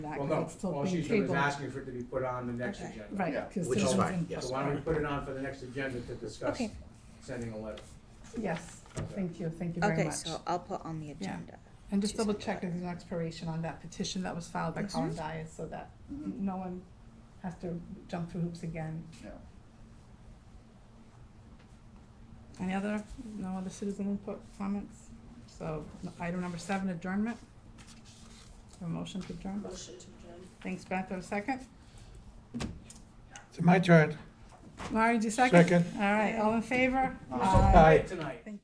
that, Well, 'cause no, it's still all being she's doing is tabled. asking for it to be put on the next Okay, agenda. Yeah. Right, because Which it is was fine, in- yes. So why don't we put it on for the next agenda to discuss Okay. sending a letter? Yes, thank you, thank you very Okay, much. so I'll put on the agenda. And just She's double got check it. if there's an expiration on that petition that was filed by Colin Dyer, so that n- no one has to jump through hoops again. Yeah. Any other, no other citizen input comments? So n- item number seven, adjournment. A motion to adjourn. Motion to adjourn. Thanks, Beth, have a second? It's my turn. Laurie, do you second? Second. All right, all in favor? Aye. Tonight.